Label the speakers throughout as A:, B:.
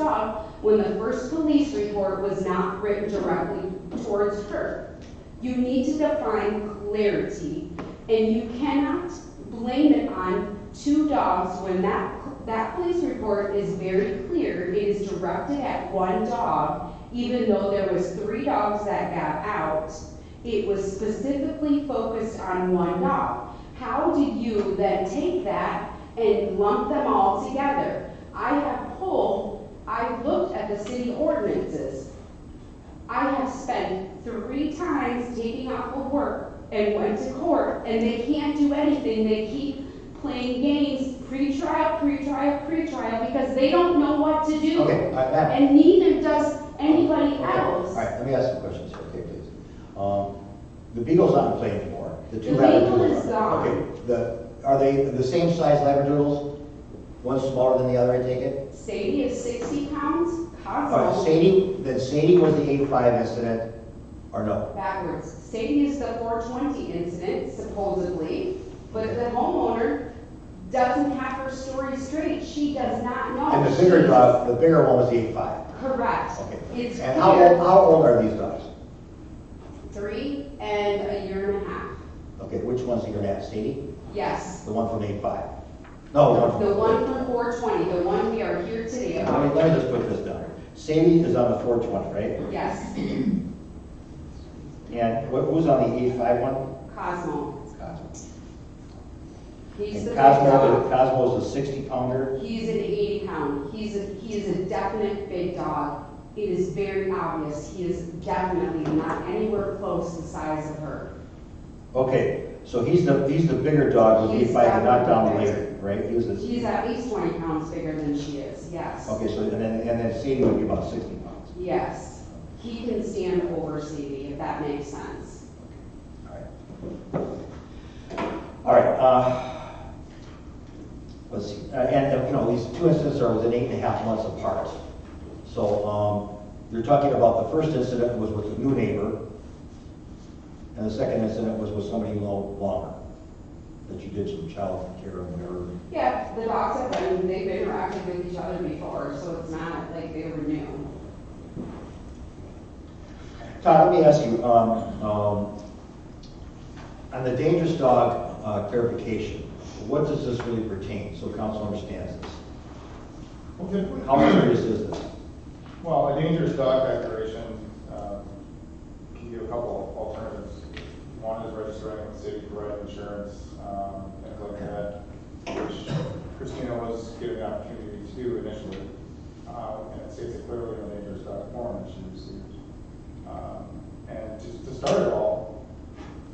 A: job when the first police report was not written directly towards her. You need to define clarity, and you cannot blame it on two dogs when that, that police report is very clear. It is directed at one dog, even though there was three dogs that got out. It was specifically focused on one dog. How do you then take that and lump them all together? I have pulled, I looked at the city ordinances. I have spent three times taking off of work and went to court, and they can't do anything. They keep playing games, pre-trial, pre-trial, pre-trial, because they don't know what to do.
B: Okay, all right, Matt.
A: And neither does anybody
B: Okay, All
A: else.
B: right, let me ask some questions, okay, please. Um, The Beagle's not in play anymore. two
A: The Beagle
B: Labradoodles
A: is
B: are.
A: gone.
B: Okay, the, are they the same size Labradoodles? One smaller than the other, I take it?
A: Sadie is sixty pounds,
B: All right,
A: Cosmo
B: Sadie, then Sadie was the eight-five incident, or no?
A: backwards. Sadie is the four twenty incident supposedly, but the homeowner doesn't have her story straight. She does not know.
B: And the bigger
A: She's-
B: dog, the bigger one was the eight-five,
A: Correct.
B: okay.
A: It's
B: And how old,
A: clear,
B: how old are these dogs?
A: three and a year and a half.
B: Okay, which one's the granite, Sadie?
A: Yes.
B: The one from eight-five? No, the one from.
A: The one from four twenty, the one we are here today
B: Let me,
A: about.
B: let me just put this down. Sadie is on the four twenty, right?
A: Yes,
B: And wh- who's on the eight-five one?
A: Cosmo.
B: Cosmo.
A: He's
B: And
A: the big
B: Cosmo,
A: dog.
B: Cosmo's a sixty pounder,
A: He's an eighty pound. He's a, he is a definite big dog. It is very obvious. He is definitely not anywhere close the size of her.
B: okay, so he's the, he's the bigger dog, who he
A: He's
B: fight to knock down the
A: definitely
B: later, right? He was the,
A: He's at least twenty pounds bigger than she is, yes.
B: okay, so, and then, and then Sadie would be about sixty pounds.
A: Yes. He can stand over Stevie, if that makes sense.
B: Alright, Alright, uh, let's see, uh, and, uh, you know, these two incidents are within eight and a half months apart. So, um, you're talking about the first incident was with a new neighbor, and the second incident was with somebody you know longer, that you did some child care and whatever.
A: Yeah, the dogs have been, they've interacted with each other before, so it's not like they were new.
B: Todd, let me ask you, um, um, on the dangerous dog uh, clarification, what does this really pertain, so council understands this?
C: Okay,
B: How serious is this?
C: well, a dangerous dog declaration, um, can give a couple alternatives. One is registering with the city to provide insurance, um, things like that, which Christina was given the opportunity to do initially. Um, and it states it clearly in the dangerous dog form that she received. Um, and to, to start it all,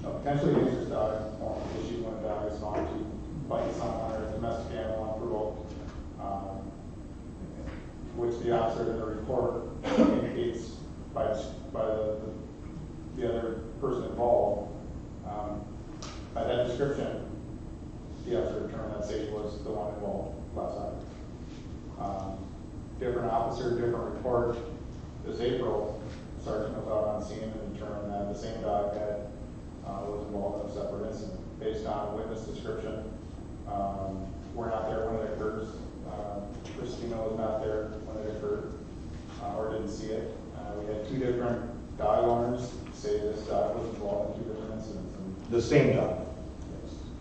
C: a potentially dangerous dog form issued when a dog is found to bite someone or a domestic animal unprovoked. Um, which the officer in the report indicates by, by the, the other person involved. Um, By that description, the officer determined that Sadie was the one involved last night. Um, Different officer, different report, this April, sergeant was out on scene and determined that the same dog had, uh, was involved in a separate incident. Based on witness description, um, we're not there when it occurs, uh, Christina was not there when it occurred, uh, or didn't see it. Uh, we had two different dog owners say this dog was involved in two different incidents. And
B: The same dog.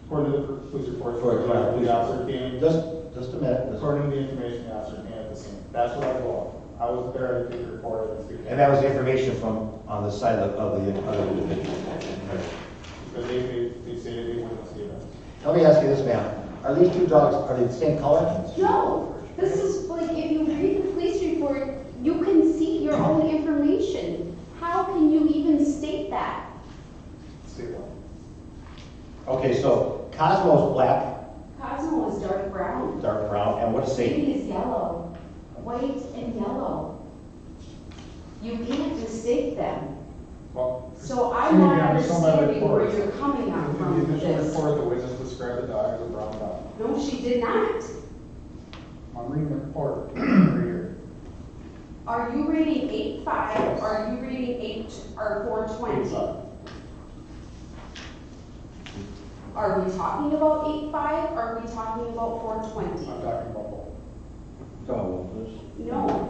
C: According to the police report,
B: For a dog.
C: the officer came,
B: Just, just a minute. just-
C: according to the information the officer came at the scene. That's what I believe. I was there to take the report and speak.
B: And that was the information from, on the side of, of the other individual.
C: But they, they, they say they witnessed the event.
B: Let me ask you this, ma'am. Are these two dogs, are they the same color?
A: No, this is like, if you read the police report, you can see your own information. How can you even state that?
C: State law.
B: Okay, so Cosmo's black,
A: Cosmo is dark brown.
B: dark brown, and what is Sadie?
A: Sadie is yellow, white and yellow. You can't mistake them.
C: Well.
A: So I'm
C: Excuse me,
A: not
C: I'm just on my
A: understanding where
C: report.
A: you're coming out
C: The
A: from with
C: initial
A: this.
C: report, the witness described the dog as a brown dog.
A: No, she did not.
C: I'm reading the report right here.
A: Are you reading eight five, are you reading eight, or four twenty? Are we talking about eight five, are we talking about four twenty?
C: I'm talking about both.
B: Oh, this.
A: No,